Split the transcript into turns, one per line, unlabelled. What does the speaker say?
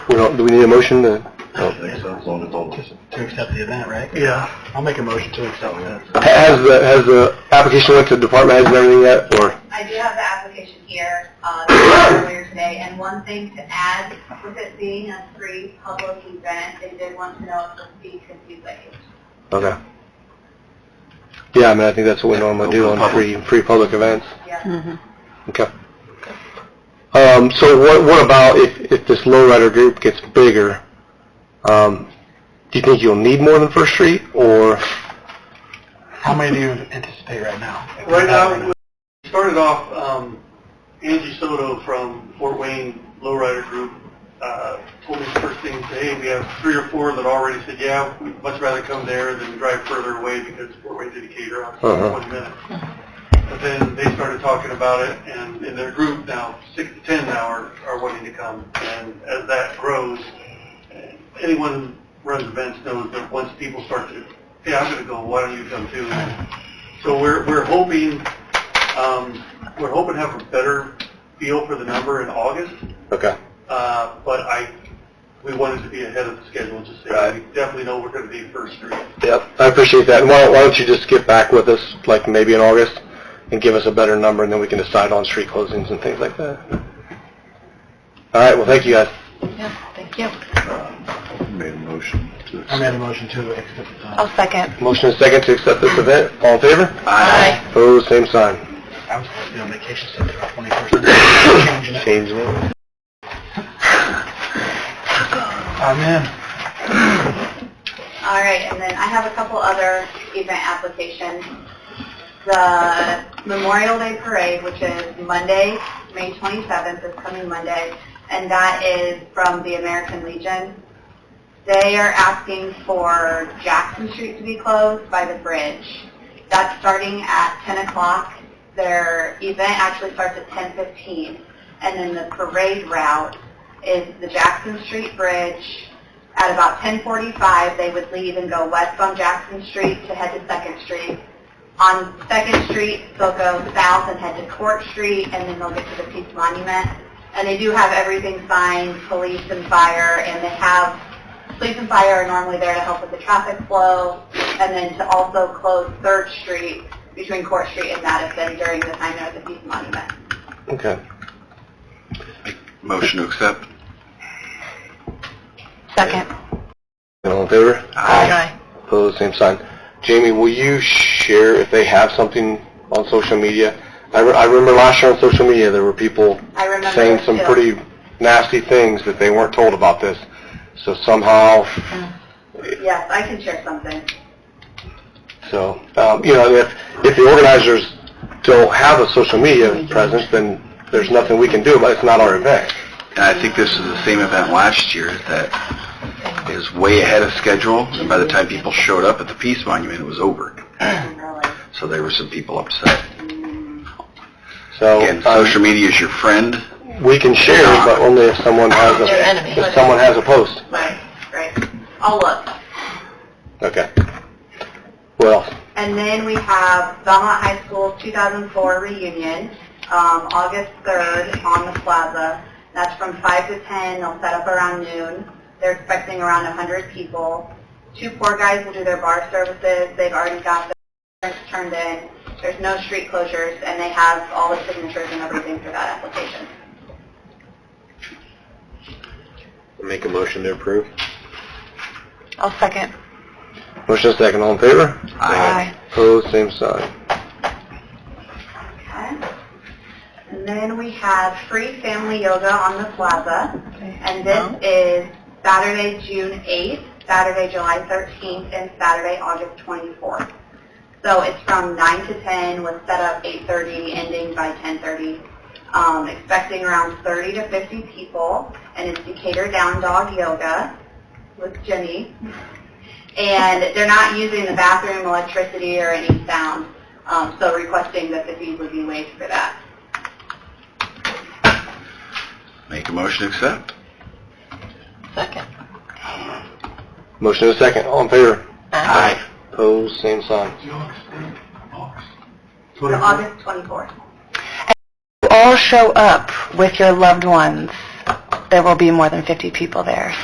we don't, do we need a motion to?
don't think so, as long as all this.
To accept the event, right?
Yeah.
I'll make a motion to accept that.
Has the, has the application went to department heads and everything yet, or?
I do have the application here, uh, earlier today, and one thing to add, with it being a free public event, they did want to know if the fee could be waived.
Okay. Yeah, I mean, I think that's what we normally do on free, free public events.
Yeah.
Mm-hmm.
Okay. Um, so what, what about if, if this lowrider group gets bigger? Um, do you think you'll need more than First Street, or?
How many do you anticipate right now?
Right now, we started off, um, Angie Soto from Fort Wayne Lowrider Group, uh, told me first thing, hey, we have three or four that already said, yeah, we'd much rather come there than drive further away because Fort Wayne's in Decatur, I'm
Uh-huh.
twenty minutes. But then they started talking about it, and in their group now, six to ten now are, are wanting to come. And as that grows, anyone who runs events knows that once people start to, hey, I'm gonna go, why don't you come too? So we're, we're hoping, um, we're hoping to have a better feel for the number in August,
Okay.
uh, but I, we wanted to be ahead of the schedule, just so we
Right.
definitely know we're gonna be first three.
Yep, I appreciate that. And why, why don't you just get back with us, like maybe in August, and give us a better number, and then we can decide on street closings and things like that. All right, well, thank you guys.
Yeah, thank you.
Made a motion to
I made a motion to accept the, uh,
I'll second.
Motion is second to accept this event. All in favor?
Aye.
Opposed, same sign.
I was supposed to be on vacation, so the twenty-first, changing it.
Changing it.
I'm in.
All right, and then I have a couple other event applications. The Memorial Day Parade, which is Monday, May 27th, this coming Monday, and that is from the American Legion. They are asking for Jackson Street to be closed by the bridge. That's starting at 10 o'clock. Their event actually starts at 10:15, and then the parade route is the Jackson Street Bridge. At about 10:45, they would leave and go west on Jackson Street to head to Second Street. On Second Street, they'll go south and head to Court Street, and then they'll get to the Peace Monument. And they do have everything signed, police and fire, and they have, police and fire are normally there to help with the traffic flow, and then to also close Third Street between Court Street and Madison during the time they're at the Peace Monument.
Okay.
Motion to accept.
Second.
All in favor?
Aye.
Opposed, same sign. Jamie, will you share if they have something on social media? I, re- I remember last year on social media, there were people
I remember
saying some
too.
pretty nasty things that they weren't told about this. So somehow,
Yes, I can share something.
so, um, you know, if, if the organizers don't have a social media presence, then there's nothing we can do, but it's not our event.
And I think this is the same event last year that is way ahead of schedule, and by the time people showed up at the Peace Monument, it was over.
Really.
So there were some people upset.
So,
Again,
Oh,
um,
social media is your friend.
we can share, but only if someone has
Your
a,
enemy.
if someone has a post.
Right, right. I'll look.
Okay. Well,
And then we have Belmont High School 2004 reunion, um, August 3rd on the plaza. That's from 5 to 10. They'll set up around noon. They're expecting around 100 people. Two poor guys will do their bar services. They've already got their insurance turned in. There's no street closures, and they have all the signatures and everything for that application.
make a motion to approve.
I'll second.
Motion is second, all in favor? Opposed, same sign.
Okay. And then we have free family yoga on the plaza. And this is Saturday, June 8th, Saturday, July 13th, and Saturday, August 24th. So it's from 9 to 10 with setup 8.30, ending by 10.30. Um, expecting around 30 to 50 people. And it's Decatur Down Dog Yoga with Jenny. And they're not using the bathroom, electricity, or any sound. Um, so requesting that the fees would be waived for that.
Make a motion to accept.
Second.
Motion is second, all in favor?
Aye.
Opposed, same sign.
So August 24th.
You all show up with your loved ones there will be more than 50 people there,